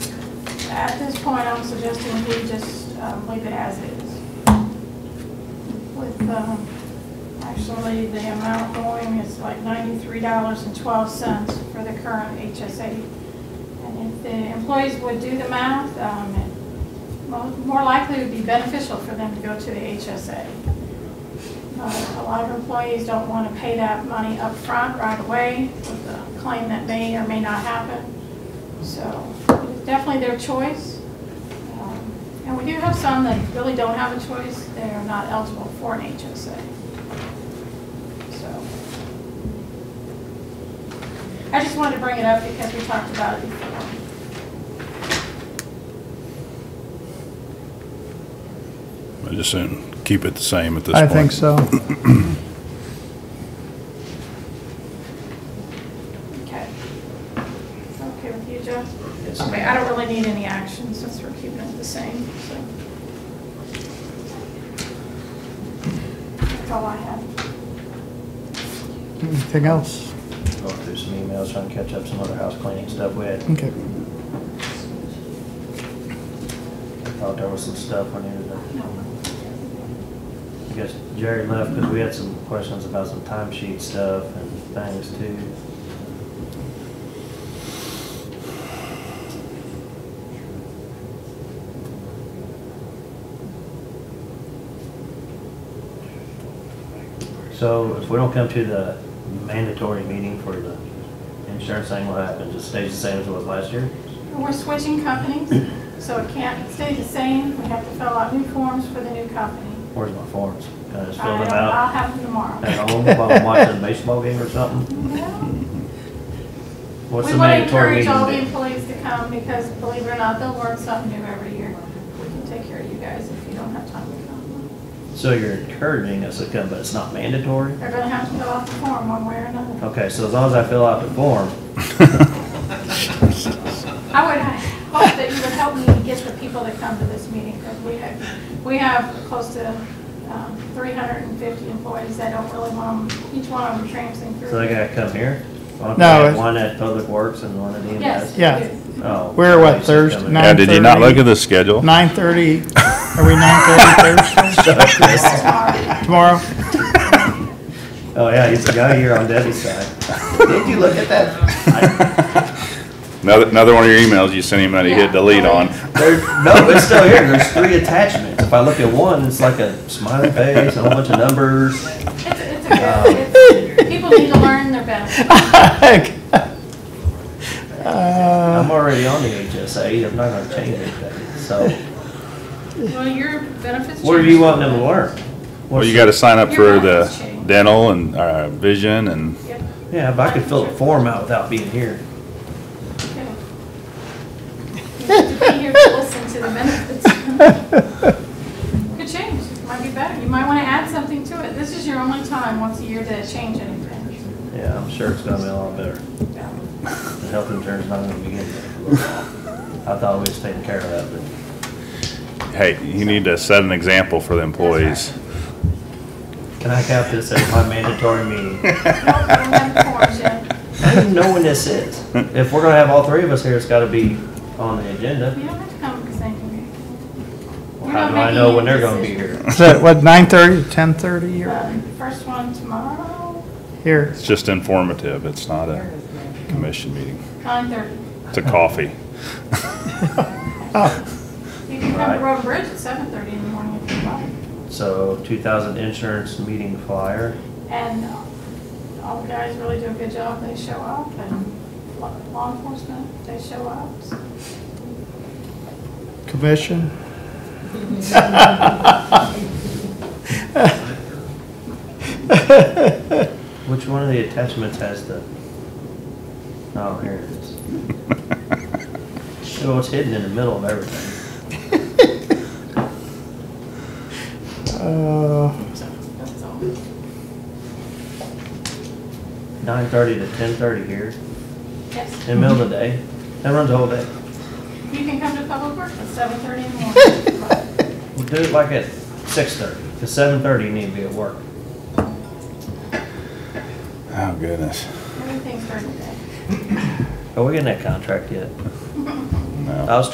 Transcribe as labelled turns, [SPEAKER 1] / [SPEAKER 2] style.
[SPEAKER 1] At this point, I'm suggesting we just um, leave it as is. With, um, actually, the amount going is like $93.12 for the current HSA. And if the employees would do the math, um, it mo- more likely would be beneficial for them to go to the HSA. Uh, A lot of employees don't want to pay that money up front right away with the claim that may or may not happen. So it's definitely their choice. Um, And we do have some that really don't have a choice. They are not eligible for an HSA. So I just wanted to bring it up because we talked about it before.
[SPEAKER 2] I just assume keep it the same at this
[SPEAKER 3] I
[SPEAKER 2] point.
[SPEAKER 3] think so.
[SPEAKER 1] Okay. Is that okay with you, Jeff?
[SPEAKER 4] Yes.
[SPEAKER 1] Okay, I don't really need any action since we're keeping it the same, so. That's all I have.
[SPEAKER 3] Anything else?
[SPEAKER 4] Go through some emails, trying to catch up some other house cleaning stuff we had.
[SPEAKER 3] Okay.
[SPEAKER 4] Thought there was some stuff I needed to,
[SPEAKER 1] No.
[SPEAKER 4] I guess Jerry left because we had some questions about some timesheet stuff and things too. So if we don't come to the mandatory meeting for the insurance thing, what happens? It stays the same as it was last year?
[SPEAKER 1] We're switching companies, so it can't stay the same. We have to fill out new forms for the new company.
[SPEAKER 4] Where's my forms? Can I just
[SPEAKER 1] I
[SPEAKER 4] fill them
[SPEAKER 1] don't-
[SPEAKER 4] out
[SPEAKER 1] I'll have them tomorrow.
[SPEAKER 4] at home while I'm watching a baseball game or something?
[SPEAKER 1] No.
[SPEAKER 4] What's
[SPEAKER 1] We
[SPEAKER 4] the
[SPEAKER 1] want to encourage
[SPEAKER 4] mandatory meeting?
[SPEAKER 1] all the
[SPEAKER 4] date?
[SPEAKER 1] employees to come because believe it or not, they'll learn something new every year. We can take care of you guys if you don't have time to come.
[SPEAKER 4] So you're encouraging us to come, but it's not mandatory?
[SPEAKER 1] They're gonna have to fill out the form one way or another.
[SPEAKER 4] Okay, so as long as I fill out the form,
[SPEAKER 1] I would hope that you would help me get the people that come to this meeting because we have, we have close to um, 350 employees that don't really want them, each one of them tramping through.
[SPEAKER 4] so they gotta come here? Why don't
[SPEAKER 3] No,
[SPEAKER 4] we have
[SPEAKER 3] it's-
[SPEAKER 4] One at Public Works and one at EMS?
[SPEAKER 1] Yes.
[SPEAKER 3] Yeah.
[SPEAKER 1] you do.
[SPEAKER 4] Oh.
[SPEAKER 3] We're what,
[SPEAKER 4] it's just
[SPEAKER 3] Thursday
[SPEAKER 4] coming.
[SPEAKER 3] night?
[SPEAKER 2] Yeah, did you not look at the schedule?
[SPEAKER 3] Nine thirty, are we nine thirty Thursday?
[SPEAKER 1] Sorry.
[SPEAKER 3] Tomorrow?
[SPEAKER 4] Oh, yeah, he's the guy here on Debbie's side. Did you look at that?
[SPEAKER 2] Another, another one of your emails you sent him that he hit
[SPEAKER 1] Yeah.
[SPEAKER 2] delete on.
[SPEAKER 4] There, no, it's still here, there's three attachments. If I look at one, it's like a smiley face, a whole bunch of numbers.
[SPEAKER 1] It's, it's a good, it's, people need to learn their benefits.
[SPEAKER 3] Uh,
[SPEAKER 4] I'm already on the HSA, I'm not gonna change anything, so.
[SPEAKER 1] Well, your benefits.
[SPEAKER 4] What are you wanting them to learn?
[SPEAKER 2] Well,
[SPEAKER 4] What's-
[SPEAKER 2] you gotta sign up
[SPEAKER 1] Your
[SPEAKER 2] for the
[SPEAKER 1] license change.
[SPEAKER 2] dental and, uh, vision and,
[SPEAKER 1] Yep,
[SPEAKER 4] Yeah, if I could fill the form out without being here.
[SPEAKER 1] okay. You have to be here to listen to the benefits. Could change, It might be better, you might wanna add something to it, this is your only time once a year to change anything.
[SPEAKER 4] Yeah, I'm sure it's gonna be a lot better.
[SPEAKER 1] Yeah.
[SPEAKER 4] The health insurance not gonna be good. I thought we was taking care of that, but
[SPEAKER 2] hey, you need to set an example for the employees.
[SPEAKER 4] can I count this as my mandatory meeting?
[SPEAKER 1] Nope, I don't have the forms yet.
[SPEAKER 4] I don't even know when this is. If we're gonna have all three of us here, it's gotta be on the agenda.
[SPEAKER 1] You don't have to come because I can.
[SPEAKER 4] Well, How do I know when they're gonna be here?
[SPEAKER 3] Is it, what, nine thirty, ten thirty, or
[SPEAKER 1] Um, First one tomorrow,
[SPEAKER 3] here?
[SPEAKER 2] It's just informative. It's not a commission meeting.
[SPEAKER 1] nine thirty.
[SPEAKER 2] It's a coffee.
[SPEAKER 3] Oh,
[SPEAKER 1] You can come
[SPEAKER 4] Right.
[SPEAKER 1] to Road Bridge at seven thirty in the morning if you want.
[SPEAKER 4] So, two thousand insurance meeting flyer.
[SPEAKER 1] And uh, all the guys really do a good job, they show up, and law law enforcement, they show up. So
[SPEAKER 3] Commission?
[SPEAKER 4] Which one of the attachments has the? Oh, here it is. So it's hidden in the middle of everything.
[SPEAKER 3] Uh,
[SPEAKER 1] That's all.
[SPEAKER 4] Nine thirty to ten thirty here,
[SPEAKER 1] Yes,
[SPEAKER 4] in the middle of the day. That runs the whole day.
[SPEAKER 1] you can come to Public Works at seven thirty in the morning. if you want.
[SPEAKER 4] We'll do it like at six thirty, because seven thirty you need to be at work.
[SPEAKER 2] Oh, goodness.
[SPEAKER 1] Everything's during the day.
[SPEAKER 4] Are we getting that contract yet?
[SPEAKER 2] No.
[SPEAKER 4] I was